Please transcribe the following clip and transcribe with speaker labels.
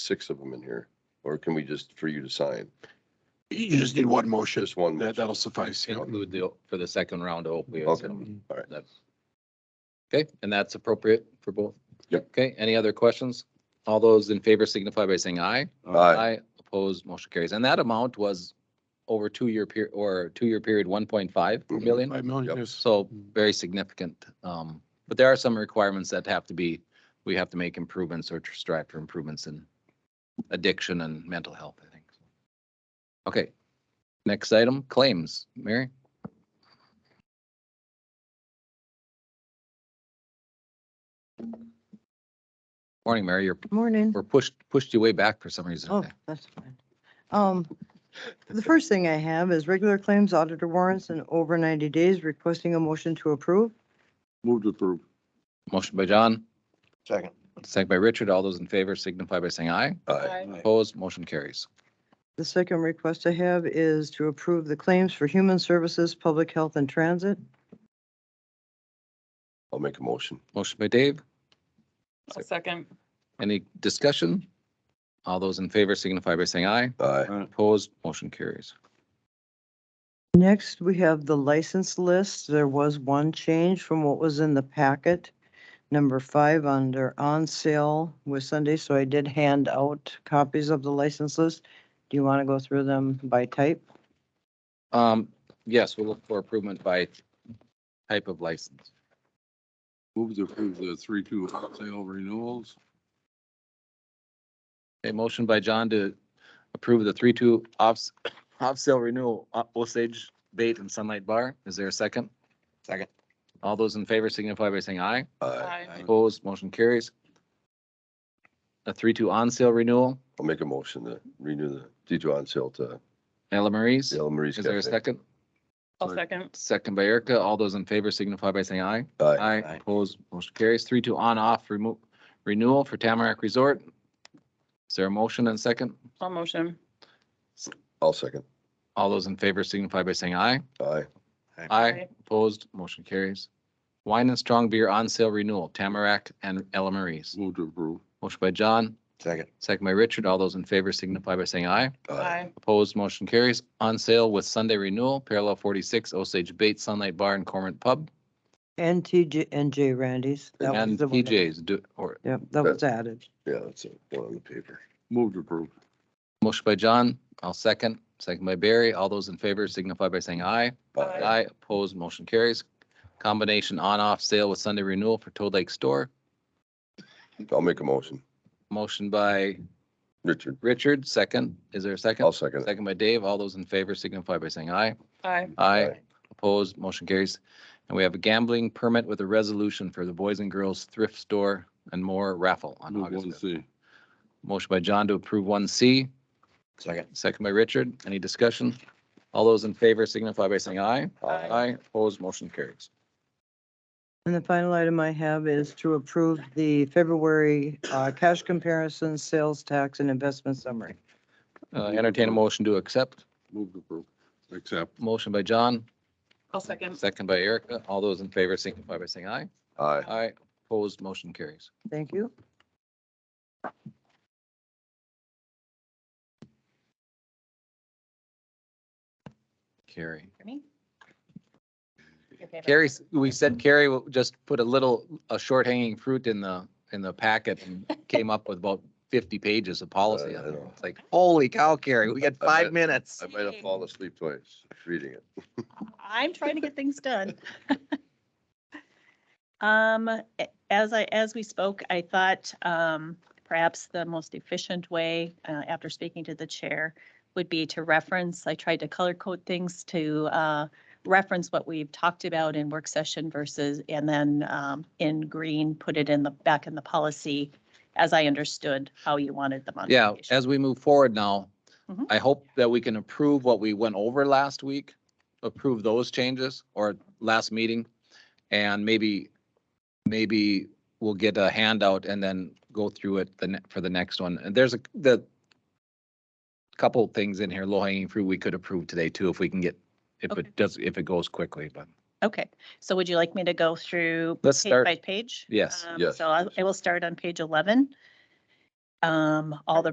Speaker 1: six of them in here? Or can we just, for you to sign?
Speaker 2: You just need one motion.
Speaker 1: Just one.
Speaker 2: That, that'll suffice. you know.
Speaker 3: Include the, for the second round of opioids.
Speaker 1: Okay. All right.
Speaker 3: That- Okay, and that's appropriate for both?
Speaker 1: Yep.
Speaker 3: Okay, any other questions? All those in favor signify by saying aye.
Speaker 1: Aye.
Speaker 3: Opposed, motion carries. And that amount was over two-year period, or two-year period, one point five million?
Speaker 2: Five million,
Speaker 1: Yep.
Speaker 2: yes.
Speaker 3: So very significant. Um, but there are some requirements that have to be, we have to make improvements or strive for improvements in addiction and mental health, I think. Okay, next item, claims. Mary? Morning, Mary. You're,
Speaker 4: Morning.
Speaker 3: we're pushed, pushed you way back for some reason.
Speaker 4: Oh,
Speaker 3: today.
Speaker 4: that's fine. Um, the first thing I have is regular claims auditor warrants and over ninety days requesting a motion to approve.
Speaker 2: Move to approve.
Speaker 3: Motion by John,
Speaker 5: Second.
Speaker 3: second by Richard. All those in favor signify by saying aye.
Speaker 1: Aye.
Speaker 3: Opposed, motion carries.
Speaker 4: The second request I have is to approve the claims for human services, public health and transit.
Speaker 1: I'll make a motion.
Speaker 3: Motion by Dave,
Speaker 6: I'll second.
Speaker 3: Any discussion? All those in favor signify by saying aye.
Speaker 1: Aye.
Speaker 3: Opposed, motion carries.
Speaker 4: Next, we have the license list. There was one change from what was in the packet. Number five under on sale was Sunday, so I did hand out copies of the license list. Do you want to go through them by type?
Speaker 3: Um, yes, we'll look for improvement by type of license.
Speaker 2: Move to approve the three, two sale renewals.
Speaker 3: A motion by John to approve the three-two off, off sale renewal, uh, Osage Bait and Sunlight Bar. Is there a second?
Speaker 5: Second.
Speaker 3: All those in favor signify by saying aye.
Speaker 1: Aye.
Speaker 6: Aye.
Speaker 3: Opposed, motion carries. A three-two on sale renewal,
Speaker 1: I'll make a motion to renew the detour on sale to
Speaker 3: Ella Marie's.
Speaker 1: uh, the El Maris
Speaker 3: Is there a
Speaker 1: Cafe.
Speaker 3: second?
Speaker 6: I'll second.
Speaker 3: Second by Erica. All those in favor signify by saying aye.
Speaker 1: Aye.
Speaker 3: Aye,
Speaker 5: Aye.
Speaker 3: opposed, motion carries. Three, two, on, off, remove, renewal for Tamarack Resort. Is there a motion and second?
Speaker 6: I'll motion.
Speaker 1: I'll second.
Speaker 3: All those in favor signify by saying aye.
Speaker 1: Aye.
Speaker 3: Aye,
Speaker 6: Aye.
Speaker 3: opposed, motion carries. Wine and strong beer on sale renewal, Tamarack and Ella Marie's.
Speaker 2: Move to approve.
Speaker 3: Motion by John,
Speaker 5: Second.
Speaker 3: second by Richard. All those in favor signify by saying aye.
Speaker 6: Aye.
Speaker 3: Opposed, motion carries. On sale with Sunday renewal, parallel forty-six, Osage Bates Sunlight Bar and Cormorant Pub
Speaker 4: And TJ, and J Randy's. That was
Speaker 3: and
Speaker 4: the one that-
Speaker 3: PJ's. Do, or,
Speaker 4: Yep, that was added.
Speaker 1: Yeah, that's it. One on the paper.
Speaker 2: Move to approve.
Speaker 3: motion by John, I'll second, second by Barry. All those in favor signify by saying aye.
Speaker 6: Aye.
Speaker 3: Aye, opposed, motion carries. Combination on-off sale with Sunday renewal for Toad Lake Store.
Speaker 1: I'll make a motion.
Speaker 3: Motion by
Speaker 1: Richard,
Speaker 3: Richard, second. Is there a
Speaker 1: I'll
Speaker 3: second?
Speaker 1: second. it.
Speaker 3: Second by Dave. All those in favor signify by saying aye.
Speaker 6: Aye.
Speaker 3: Aye,
Speaker 1: Aye.
Speaker 3: opposed, motion carries. And we have a gambling permit with a resolution for the Boys and Girls Thrift Store and More raffle on
Speaker 2: Move
Speaker 3: August
Speaker 2: one
Speaker 3: 5th.
Speaker 2: C.
Speaker 3: Motion by John to approve one C,
Speaker 5: Second.
Speaker 3: second by Richard. Any discussion? All those in favor signify by saying aye.
Speaker 6: Aye.
Speaker 3: Aye, opposed, motion carries.
Speaker 4: And the final item I have is to approve the February uh, cash comparison, sales tax and investment summary.
Speaker 3: Uh, Entertain a motion to accept.
Speaker 2: Move to approve. Accept.
Speaker 3: Motion by John,
Speaker 6: I'll second.
Speaker 3: Second by Erica. All those in favor signify by saying aye.
Speaker 1: Aye.
Speaker 3: Aye. Opposed, motion carries.
Speaker 4: Thank you.
Speaker 3: Carrie.
Speaker 6: Me?
Speaker 3: Carrie, we said Carrie will just put a little, a short hanging fruit in the, in the packet and came up with about fifty pages of policy.
Speaker 1: Uh, I know.
Speaker 3: It's like, holy cow, Carrie, we got
Speaker 1: I
Speaker 3: five
Speaker 1: bet.
Speaker 3: minutes.
Speaker 1: I might have fallen asleep twice reading it.
Speaker 7: I'm trying to get things done. Um, a- as I, as we spoke, I thought, um, perhaps the most efficient way, uh, after speaking to the chair would be to reference, I tried to color code things to, uh, reference what we've talked about in work session versus, and then, um, in green, put it in the, back in the policy as I understood how you wanted the
Speaker 3: Yeah,
Speaker 7: modification.
Speaker 3: as we move forward now,
Speaker 7: Mhm.
Speaker 3: I hope that we can approve what we went over last week, approve those changes or last meeting. And maybe, maybe we'll get a handout and then go through it the, ne- for the next one. And there's a, the couple things in here, low hanging fruit we could approve today too, if we can get, if
Speaker 7: Okay.
Speaker 3: it does, if it goes quickly, but
Speaker 7: Okay, so would you like me to go through?
Speaker 3: Let's
Speaker 7: pa-
Speaker 3: start-
Speaker 7: By page?
Speaker 3: Yes.
Speaker 7: Um,
Speaker 1: Yes,
Speaker 7: So I
Speaker 1: please.
Speaker 7: I will start on page 11. Um, All the